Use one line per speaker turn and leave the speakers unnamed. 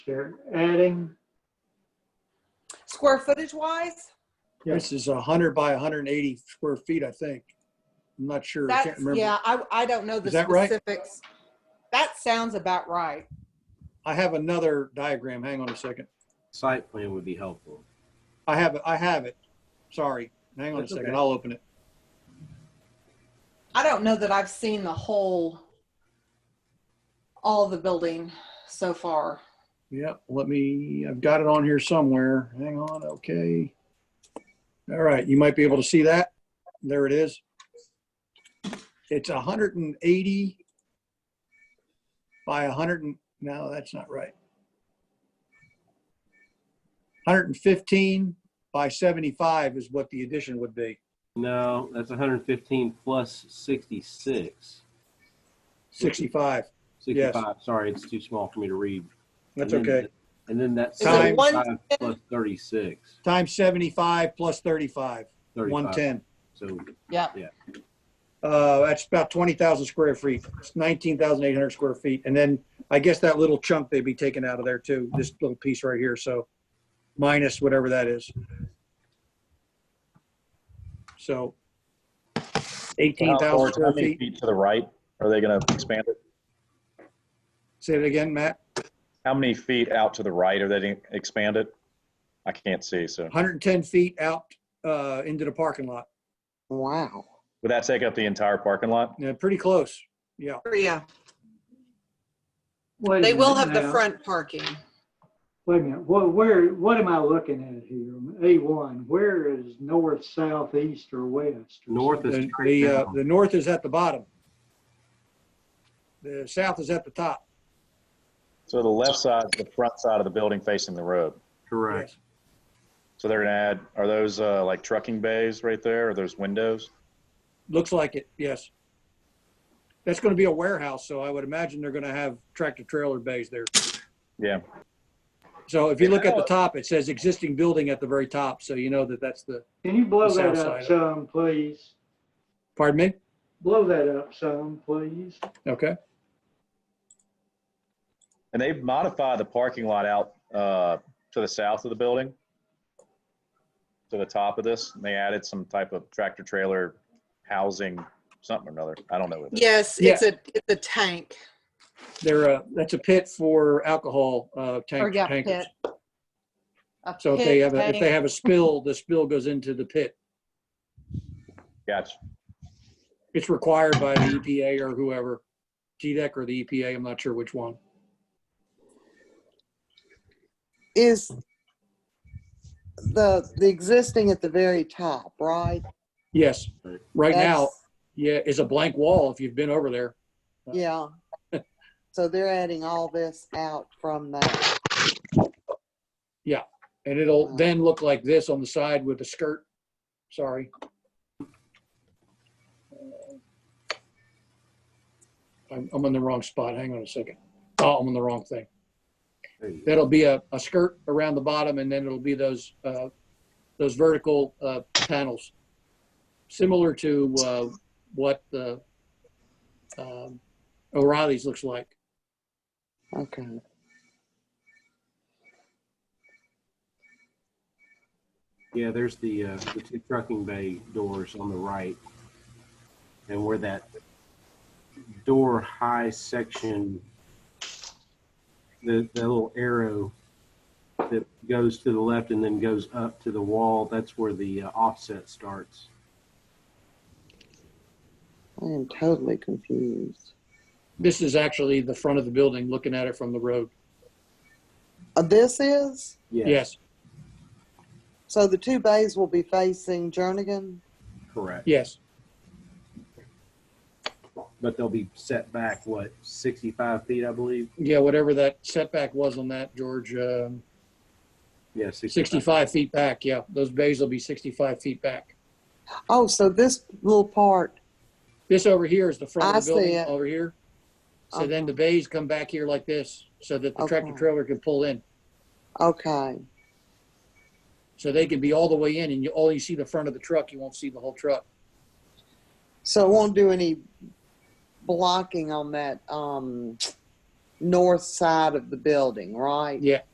They're adding,
Square footage wise,
This is 100 by 180 square feet, I think. I'm not sure. I can't
that's,
remember.
yeah, I, I don't know the
Is that right?
specifics. That sounds about right.
I have another diagram. Hang on a second.
Site plan would be helpful.
I have it. I have it. Sorry. Hang on a
That's
second.
okay.
I'll open it.
I don't know that I've seen the whole, all the building so far.
Yeah, let me, I've got it on here somewhere. Hang on. Okay. All right. You might be able to see that. There it is. It's 180 by 100. and- No, that's not right. 115 by 75 is what the addition would be.
No, that's 115 plus 66.
65.
65. Sorry, it's too small for me to read.
That's
And then-
okay.
And then that's
Is
it
one-
75 plus 36.
Times 75 plus 35,
35.
110.
So
Yeah.
Uh, that's about 20,000 square feet, It's 19,800 square feet. And then I guess that little chunk they'd be taking out of there too, this little piece right here. So minus whatever that is. So
How far-
18,000
how
square
many
feet.
feet to the right are they going to expand it?
Say it again, Matt.
How many feet out to the right are they going to expand it? I can't see, so.
110 feet out, uh, into the parking lot.
Wow.
Would that take up the entire parking lot?
Yeah, pretty close. Yeah.
Yeah,
wait a
they will
minute
have the
now.
front parking.
Wait a minute, what, where, what am I looking at here? A1, where is north, south, east, or west?
north is
The,
straight
the, uh,
down.
the north is at the bottom. The south is at the top.
So the left side, the front side of the building facing the road.
Correct.
So they're going to add, are those uh, like trucking bays right there? Are those windows?
Looks like it, yes. That's going to be a warehouse, so I would imagine they're going to have tractor trailer bays there.
Yeah.
So if you look at the top, it says existing building at the very top, so you know that that's the,
Can you blow
The
that
south
up
side.
some, please?
pardon me?
Blow that up some, please.
Okay,
And they've modified the parking lot out uh, to the south of the building, to the top of this, and they added some type of tractor trailer housing, something or another. I don't know what it is.
Yes, it's a, it's a tank.
there, uh, that's a pit for alcohol, uh,
Or
tank,
yeah,
tankers.
pit. A
So if they
pit
have, a if
tank.
they have a spill, the spill goes into the pit.
Gotcha.
It's required by the EPA or whoever, GDEC or the EPA, I'm not sure which one.
Is the, the existing at the very top, right?
Yes, right now,
That's-
yeah, it's a blank wall if you've been over there.
Yeah. So they're adding all this out from that.
And it'll then look like this on the side with a skirt. Sorry. I'm, I'm on the wrong spot. Hang on a second. Oh, I'm on the wrong thing.
There you go.
That'll be a, a skirt around the bottom and then it'll be those, uh, those vertical, uh, panels. Similar to, uh, what the, um, O'Reilly's looks like.
Okay.
Yeah, there's the, uh, the two trucking bay doors on the right. And where that door high section, the, the little arrow that goes to the left and then goes up to the wall, that's where the uh, offset starts.
I am totally confused.
This is actually the front of the building, looking at it from the road.
Uh, This is,
Yes,
so the two bays will be facing Jernigan?
Correct.
yes.
But they'll be set back, what, 65 feet, I believe?
Yeah, whatever that setback was on that, George, um,
Yeah, 65.
65 feet back, yeah. Those bays will be 65 feet back.
Oh, so this little part,
This over here is the front
I
of the
see
building,
it.
over here. So then the bays come back here like this, so that the tractor
Okay.
trailer can pull in.
okay,
So they can be all the way in, and you only see the front of the truck, you won't see the whole truck.
so it won't do any blocking on that, um, north side of the building, right?
Yeah.